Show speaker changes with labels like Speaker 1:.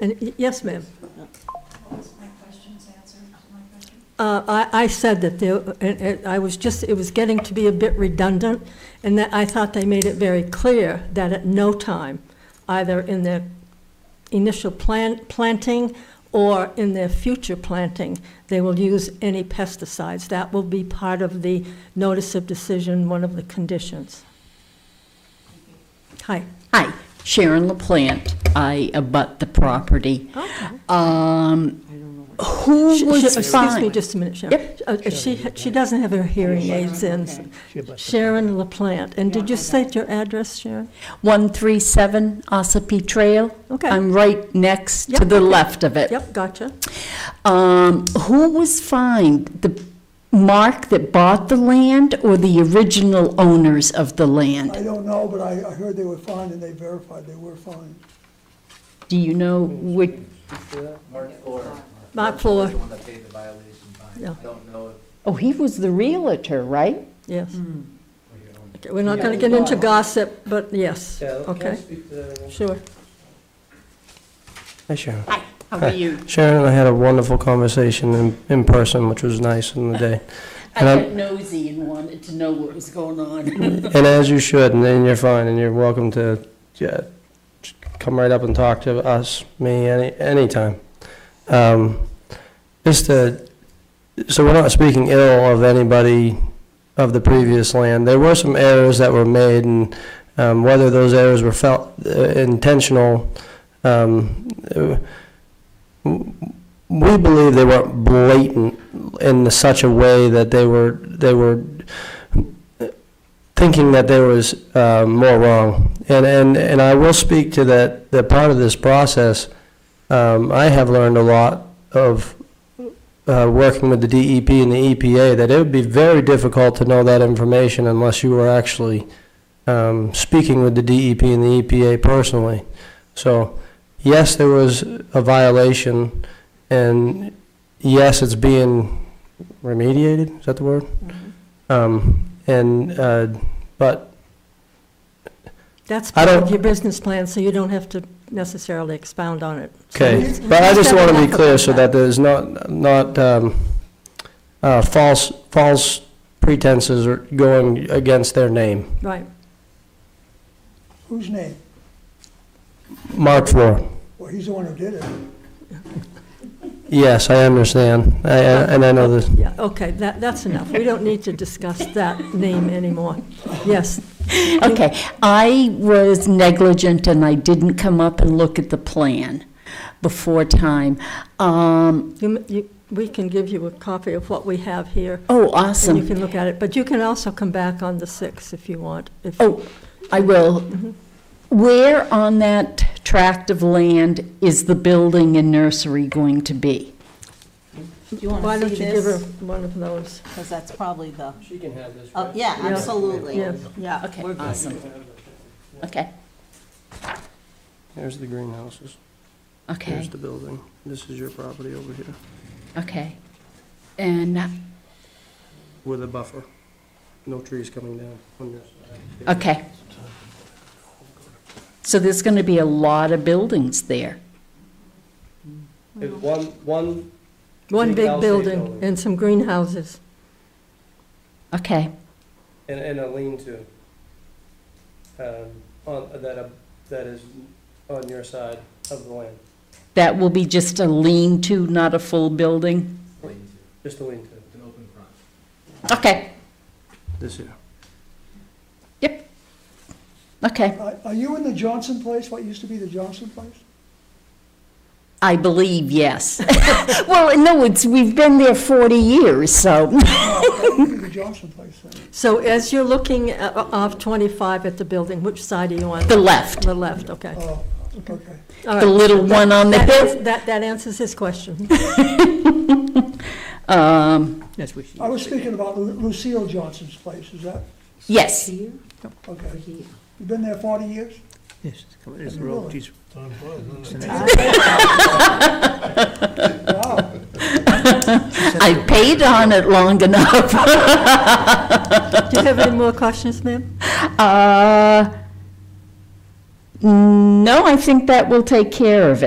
Speaker 1: And, y- yes, ma'am.
Speaker 2: Was my questions answered, my question?
Speaker 1: Uh, I, I said that there, and- and I was just, it was getting to be a bit redundant, and that I thought they made it very clear that at no time, either in their initial plant, planting or in their future planting, they will use any pesticides. That will be part of the notice of decision, one of the conditions. Hi.
Speaker 3: Hi, Sharon LaPlante. I abut the property.
Speaker 1: Okay.
Speaker 3: Um,
Speaker 1: Sh-
Speaker 3: who
Speaker 1: sh-
Speaker 3: was
Speaker 1: Excuse me
Speaker 3: fined?
Speaker 1: just a minute, Sharon. Uh, uh, She, she doesn't have her hearing aids in. Sharon LaPlante. And did you state your address, Sharon?
Speaker 3: 137 Ossipee Trail?
Speaker 1: Okay.
Speaker 3: I'm right next
Speaker 1: Yep,
Speaker 3: to the
Speaker 1: okay.
Speaker 3: left of it.
Speaker 1: Yep, gotcha.
Speaker 3: Um, who was fined? The Mark that bought the land or the original owners of the
Speaker 4: I
Speaker 3: land?
Speaker 4: don't know, but I, I heard they were fine and they verified they were fine.
Speaker 3: Do you know which?
Speaker 5: Mark four.
Speaker 1: Mark four.
Speaker 5: The one that paid the violation fine.
Speaker 1: Yeah.
Speaker 5: I don't know if
Speaker 3: Oh, he was the realtor, right?
Speaker 1: Yes.
Speaker 5: we
Speaker 6: Hmm.
Speaker 5: own.
Speaker 1: Okay, We're not going to get into gossip, but yes. Okay, sure.
Speaker 6: Hi, Sharon.
Speaker 3: Hi, how are you?
Speaker 6: Sharon and I had a wonderful conversation in, in person, which was nice in the day.
Speaker 3: I
Speaker 6: And I'm-
Speaker 3: got nosy and wanted to know what was going on.
Speaker 6: And as you should, and then you're fine, and you're welcome to, yeah, just come right up and talk to us, me, any, anytime. Um, just to, so we're not speaking ill of anybody of the previous land. There were some errors that were made, and, um, whether those errors were felt uh, intentional, um, uh, we believe they weren't blatant in such a way that they were, they were thinking that there was uh, more wrong. And, and, and I will speak to that, that part of this process, um, I have learned a lot of uh, working with the DEP and the EPA, that it would be very difficult to know that information unless you were actually um, speaking with the DEP and the EPA personally. So, yes, there was a violation, and yes, it's being remediated, is that the word? Um, and, uh, but,
Speaker 1: That's
Speaker 6: I
Speaker 1: part of
Speaker 6: don't-
Speaker 1: your business plan, so you don't have to necessarily expound on it. So
Speaker 6: okay,
Speaker 1: it's-
Speaker 6: but I just want to be clear so
Speaker 1: Yeah.
Speaker 6: that there's not, not, um, uh, false, false pretenses or going against their name.
Speaker 1: Right.
Speaker 4: Whose name?
Speaker 6: Mark floor.
Speaker 4: Well, he's the one who did it.
Speaker 6: Yes, I understand, I, I- Uh, and I know this,
Speaker 1: Yeah, okay, that, that's enough. We don't need to discuss that name anymore. Yes,
Speaker 3: Okay, I was negligent and I didn't come up and look at the plan before time. Um,
Speaker 1: you, m- you, we can give you a copy of what we have here,
Speaker 3: oh,
Speaker 1: and you
Speaker 3: awesome.
Speaker 1: can look at it. But you can also come back on the 6th if you want. if-
Speaker 3: Oh, I will. Where on that tract of land is the building and nursery going to be?
Speaker 7: Do you
Speaker 1: Why
Speaker 7: want to
Speaker 1: don't
Speaker 7: see
Speaker 1: you give her
Speaker 7: this?
Speaker 1: one of those?
Speaker 7: Because that's probably the,
Speaker 6: She can have this,
Speaker 7: oh, yeah,
Speaker 1: Yeah.
Speaker 7: absolutely.
Speaker 1: Yeah.
Speaker 7: Yeah.
Speaker 3: Okay,
Speaker 7: we're good.
Speaker 3: awesome. Okay,
Speaker 6: Here's the greenhouses, here's
Speaker 3: okay,
Speaker 6: the building, this is your property over here,
Speaker 3: okay. And,
Speaker 6: with a buffer, no trees coming down on your side.
Speaker 3: okay. So there's going to be a lot of buildings there.
Speaker 6: It's One, one
Speaker 1: One
Speaker 6: Big
Speaker 1: big
Speaker 6: house, big
Speaker 1: building
Speaker 6: building.
Speaker 1: and some greenhouses.
Speaker 3: Okay.
Speaker 6: And, and a lean-to, um, on, that, uh, that is on your side of the land,
Speaker 3: That will be just a lean-to, not a full building?
Speaker 5: Lean to.
Speaker 6: just a lean-to.
Speaker 5: It's an open front.
Speaker 3: Okay,
Speaker 6: This here.
Speaker 3: okay.
Speaker 4: Are are you in the Johnson place, what used to be the Johnson place?
Speaker 3: I believe, yes. Well, no, it's, we've been there 40 years, so,
Speaker 4: That used to be the Johnson place then.
Speaker 1: So as you're looking a- a- off 25 at the building, which side are you on?
Speaker 3: the left,
Speaker 1: The left, okay.
Speaker 4: Oh, okay.
Speaker 1: All right.
Speaker 3: the little one on the
Speaker 1: That
Speaker 3: hill.
Speaker 1: ans- That, that answers his question.
Speaker 3: Um,
Speaker 4: I was speaking about Lu- Lucille Johnson's place, is that,
Speaker 3: Yes,
Speaker 4: okay. You've been there forty years?
Speaker 8: Yes, it's coming, it's
Speaker 4: Really?
Speaker 8: road, geez.
Speaker 4: Wow.
Speaker 3: I paid on it long enough.
Speaker 1: Do you have any more questions, ma'am?
Speaker 3: Uh, No, I think that will take care of it.